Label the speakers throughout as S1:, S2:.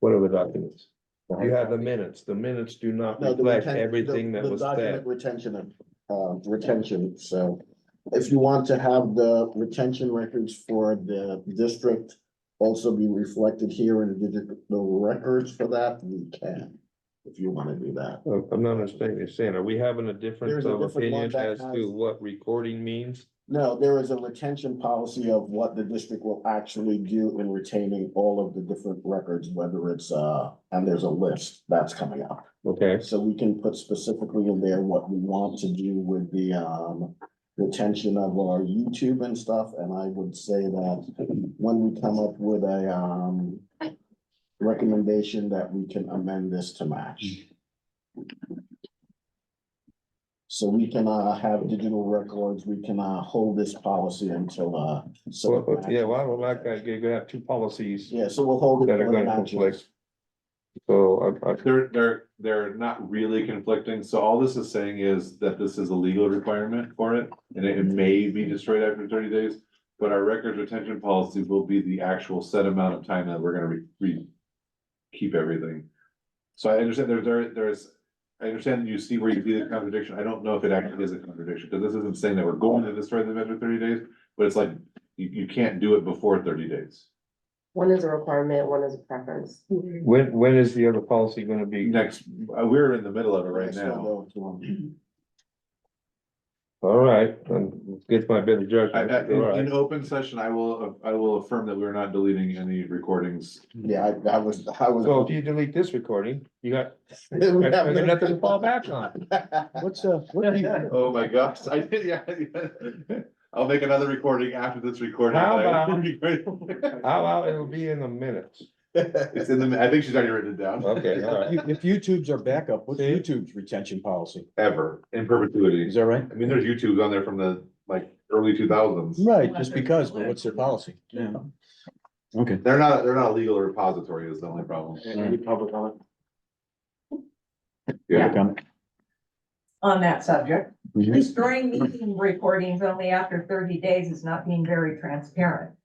S1: What are the documents?
S2: The hard
S1: You have the
S2: copy.
S1: minutes. The minutes do not
S2: No, the
S1: reflect
S2: reten-
S1: everything
S2: the-
S1: that
S2: the
S1: was
S2: document
S1: said.
S2: Retention of, uh, retention, so if you want to have the retention records for the district. Also be reflected here in the digital records for that, we can, if you wanna do that.
S1: Oh, I'm not understanding what you're saying. Are we having a difference
S2: There's a
S1: of
S2: different one
S1: opinion
S2: that
S1: as to
S2: has-
S1: what recording means?
S2: No, there is a retention policy of what the district will actually do in retaining all of the different records, whether it's, uh, and there's a list that's coming up.
S1: Okay,
S2: So we can put specifically in there what we want to do with the um retention of our YouTube and stuff, and I would say that when we come up with a um recommendation that we can amend this to match. So we can uh have digital records, we can uh hold this policy until uh.
S1: well,
S2: so
S1: but- yeah, well, I don't like that. You're gonna have two policies.
S2: Yeah, so we'll hold it.
S1: That are
S2: until it
S1: gonna
S2: matches.
S1: conflict. So I, I,
S3: They're, they're, they're not really conflicting, so all this is saying is that this is a legal requirement for it, and it may be destroyed after thirty days. But our records retention policy will be the actual set amount of time that we're gonna re, re- keep everything. So I understand there, there, there's, I understand you see where you see the contradiction, I don't know if it actually is a contradiction, because this isn't saying that we're going to destroy them after thirty days, but it's like, you, you can't do it before thirty days.
S4: One is a requirement, one is a preference.
S1: when, when is the other policy gonna be?
S3: Next, uh, we're in the middle of it right
S2: Next
S3: now.
S2: we'll go to, um,
S1: All right, um, get my better
S3: I,
S1: judgment.
S3: I- in,
S1: All right.
S3: in open session, I will, I will affirm that we're not deleting any recordings.
S2: Yeah, I I was, I was.
S1: So if you delete this recording, you got, I got nothing to fall back on.
S2: What's uh, what do you?
S3: Oh my gosh, I did, yeah. yeah. I'll make another recording after this recording.
S1: How about- How about it'll be in the minutes?
S3: It's in the, I think she's already written it down.
S1: Okay, all right.
S5: If YouTube's our backup, what's
S1: See?
S5: YouTube's retention policy?
S3: Ever, in perpetuity.
S5: Is that right?
S3: I mean, there's YouTube's on there from the, like, early two thousands.
S5: Right, just because, but what's their policy? Yeah. Okay.
S3: They're not, they're not a legal repository is the only problem.
S5: Any
S2: public comment?
S3: Yeah.
S5: Comment?
S6: on that subject.
S5: Mhm.
S6: Destroying meeting recordings only after thirty days is not being very transparent.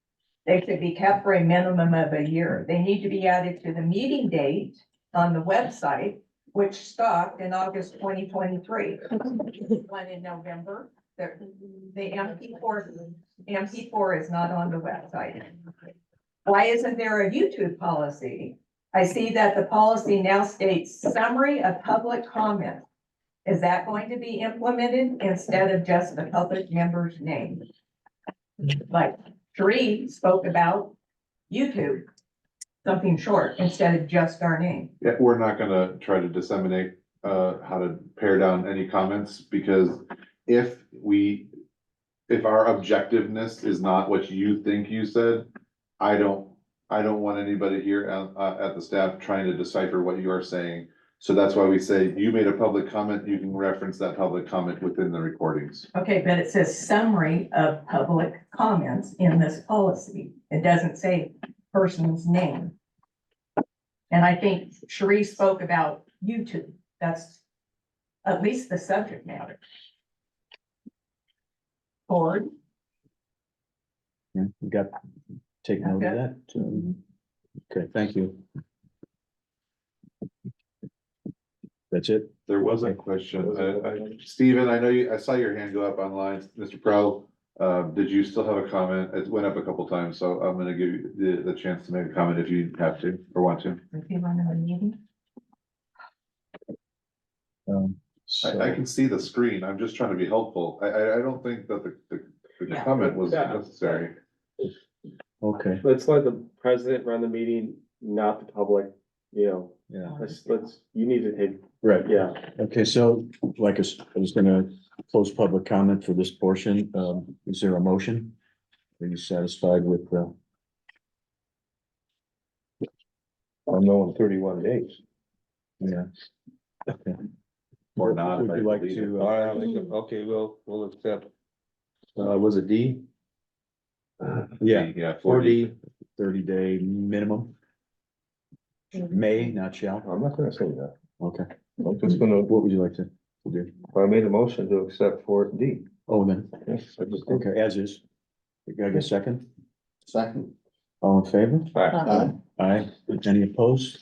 S6: They should be kept for a minimum of a year. They need to be added to the meeting date on the website, which stopped in August twenty twenty-three. One in November, There- the MP four, MP four is not on the website. Why isn't there a YouTube policy? I see that the policy now states summary of public comment. Is that going to be implemented instead of just the public member's name? Like three spoke about YouTube, something short instead of just our name.
S3: Yeah, we're not gonna try to disseminate, uh, how to pare down any comments, because if we. If our objectiveness is not what you think you said, I don't, I don't want anybody here at, uh, at the staff trying to decipher what you are saying. So that's why we say you made a public comment, you can reference that public comment within the recordings.
S6: Okay, but it says summary of public comments in this policy. It doesn't say person's name. And I think Sheree spoke about YouTube. That's at least the subject matter. Board?
S5: Yeah, We got, take note of that. um, Okay, thank you. That's it?
S3: There was a question, uh, uh, Stephen, I know you, I saw your hand go up online, Mr. Prowl. Uh, did you still have a comment? It went up a couple times, so I'm gonna give you the, the chance to make a comment if you have to or want to.
S6: If you want another meeting?
S5: Um, so-
S3: I, I can see the screen, I'm just trying to be helpful. I, I, I don't think that the, the- the
S6: Yeah.
S3: comment was
S7: Yeah.
S3: necessary.
S5: Okay,
S7: Let's let the president run the meeting, not the public, you know,
S5: yeah,
S7: let's, let's, you need to take,
S5: right.
S7: yeah.
S5: Okay, so like I s- I was gonna close public comment for this portion. Um, is there a motion? Are you satisfied with the?
S1: I'm knowing thirty-one days.
S5: Yeah.
S3: Or not, if
S5: Would
S3: I
S5: you like
S3: believe it.
S5: to,
S1: All
S5: uh,
S1: right, I'll make a- okay, we'll, we'll accept. Uh, was it D?
S5: yeah,
S3: Yeah,
S1: Four
S3: forty,
S1: D?
S5: thirty day minimum? May, not shall,
S1: I'm not gonna say that.
S5: okay.
S1: I'm just gonna,
S5: What would you like to do?
S1: I made a motion to accept four D.
S5: Oh, then,
S1: Yes, I just did.
S5: okay, as is. You got a second?
S2: Second.
S5: All in favor?
S1: All right.
S2: Uh,
S5: Aye. Any opposed?